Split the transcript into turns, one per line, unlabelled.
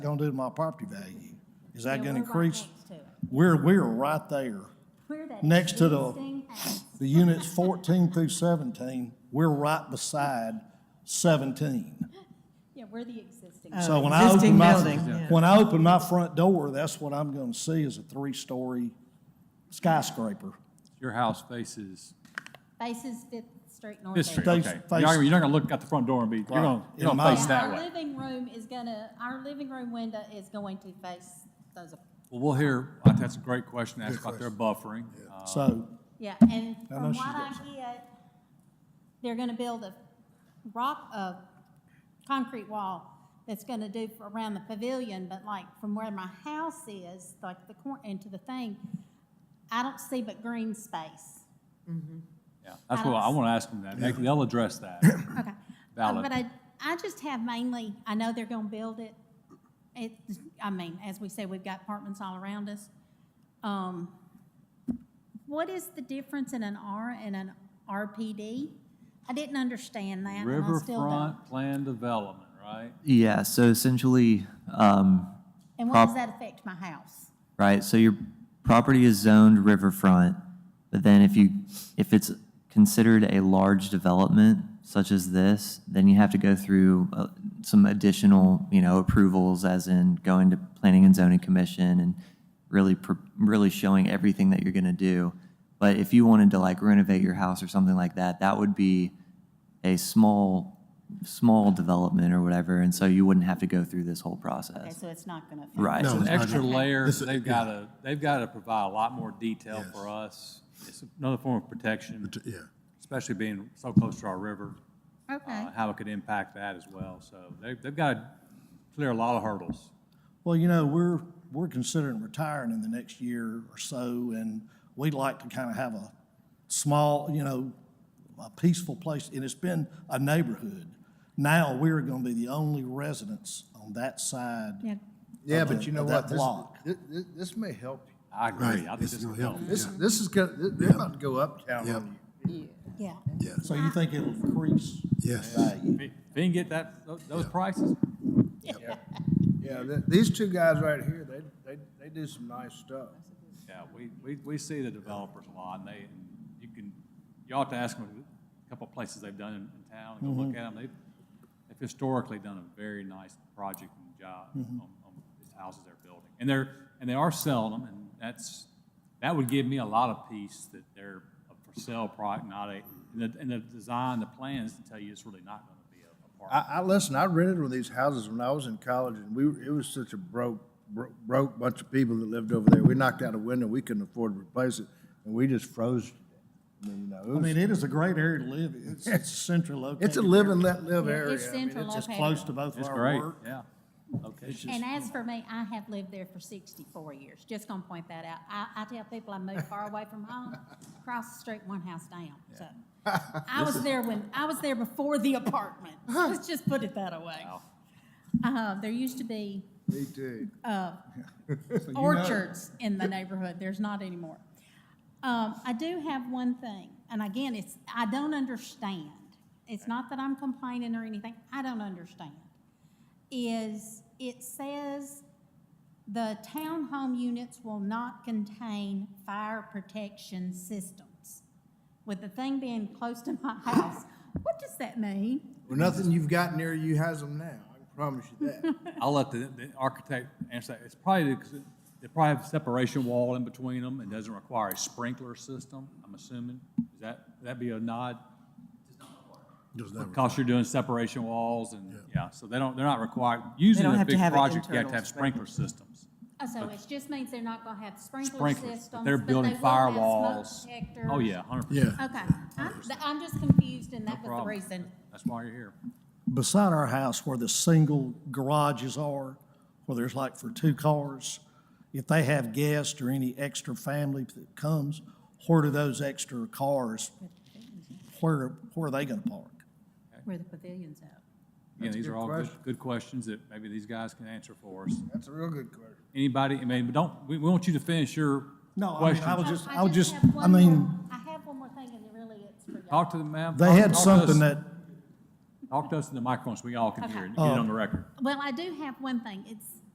gonna do to my property value? Is that
Yeah,
gonna
we're right
increase?
next to it.
We're, we're right there.
We're that
Next to the-
existing house.
The units fourteen through seventeen, we're right beside seventeen.
Yeah, we're the existing.
So when I
Existing
open my,
building, yeah.
when I open my front door, that's what I'm gonna see is a three-story skyscraper.
Your house faces
Faces Fifth Street North.
this street,
Face-
okay. You're not,
face-
you're not gonna look out the front door and be, you're gonna,
Right.
you're
In
gonna
my-
face that
Our
way.
living room is gonna, our living room window is going to face those, ap-
Well, we'll hear, I think that's a great question, ask about their buffering. Uh,
So,
yeah, and
I know
from
she's
what
got
I
some.
get, they're gonna build a rock, a concrete wall that's gonna do for around the pavilion, but like from where my house is, like the corner into the thing, I don't see but green space.
Yeah, that's what I wanna ask them that, They- they'll address that.
Okay.
Valid.
Uh, But I, I just have mainly, I know they're gonna build it. It, I mean, as we say, we've got apartments all around us. Um, What is the difference in an R and an RPD? I didn't understand that, and I still don't.
Riverfront plan development, right?
Yeah, so essentially, um,
And what does
prop-
that affect my house?
right, so your property is zoned riverfront, but then if you, if it's considered a large development such as this, then you have to go through uh, some additional, you know, approvals, as in going to Planning and Zoning Commission and really, pr- really showing everything that you're gonna do. But if you wanted to like renovate your house or something like that, that would be a small, small development or whatever, and so you wouldn't have to go through this whole
Okay,
process.
so it's not gonna affect.
Right.
It's an extra layer,
This is-
they've gotta, they've gotta provide a lot more detail
Yes.
for us. It's another form of protection,
But, Yeah,
especially being so close to our river,
Okay,
uh, how it could impact that as well. So they, they've gotta clear a lot of hurdles.
well, you know, we're, we're considering retiring in the next year or so, and we'd like to kind of have a small, you know, a peaceful place, and it's been a neighborhood. Now, we're gonna be the only residents on that side.
yeah,
Yeah,
of
but
the-
you know
of that
what? This-
block.
thi- thi- This may help you.
I agree,
Right,
I think
it's
this will
gonna
help.
help.
This,
Yeah.
this is gonna, th- they're about to go uptown
Yep.
on you.
yeah.
yeah,
So you think it'll increase
yes.
value?
If you can get that, tho- those prices,
Yeah, th- these two guys right here, they, they, they do some nice stuff.
yeah, we, we, we see the developers a lot, and they, you can, you ought to ask them, a couple of places they've done in in town, go
Mm-hmm.
look at them, they've, they've historically done a very nice project and job
Mm-hmm.
on, on these houses they're building. And they're, and they are selling them, and that's, that would give me a lot of peace that they're a for sale product, not a, and the, and the design, the plans to tell you it's really not gonna be a apartment.
I, I, listen, I rented one of these houses when I was in college and we, were- it was such a broke, bro- broke bunch of people that lived over there. We knocked out a window, we couldn't afford to replace it, and we just froze. to death. I mean, you know, it
I
was-
mean, it is a great area to live. in. It's, it's centrally located.
It's a live and let live
Yeah,
area.
It's
I mean,
central
It's
located.
close to both of
It's
our
great,
work.
yeah. Okay.
And as for me, I have lived there for sixty-four years, just gonna point that out. I, I tell people I moved far away from home, across the street, one house down, so. I was there when, I was there before the apartment, let's just put it that way. Uh, there used to be
Me too.
orchards in the neighborhood, there's not anymore. Um, I do have one thing, and again, it's, I don't understand. It's not that I'm complaining or anything, I don't understand. Is, it says the townhome units will not contain fire protection systems. With the thing being close to my house, what does that mean?
Well, nothing you've got near you has them now, I can promise you that.
I'll let the, the architect answer that. It's probably, because they probably have a separation wall in between them. It doesn't require a sprinkler system, I'm assuming. Is that, that'd be a nod?
Does that-
Because you're doing separation walls and, yeah, so they don't, they're not required. Usually
don't
in a
have to
big
have it
project, you have to
internal
have sprinkler systems.
Oh, So it just means they're not gonna have sprinkler
Uh, Sprinklers,
systems,
but
but
they're building
they will have smoke
firewalls.
detectors.
Oh, yeah, hundred percent.
Yeah,
Okay, I'm, I'm just confused, and that was the
problem.
reason.
That's why you're here.
beside our house where the single garages are, where there's like for two cars, if they have guests or any extra family that comes, where do those extra cars, where, where are they gonna park?
Where the pavilion's at.
Again,
That's a
these are
good
all good,
question.
good questions that maybe these guys can answer for us.
That's a real good question.
Anybody, I mean, but don't, we, we want you to finish your
No, I mean, I
question.
was just, I was just,
have
I
one
mean,
more- I have one more thing, and it really it's for y'all.
Talk to them, ma'am.
they
Talk-
had
talk to us-
something that, Oh.
Talk to us in the microphone so we all can hear it and get it on the record.
Well, I do have one thing, it's,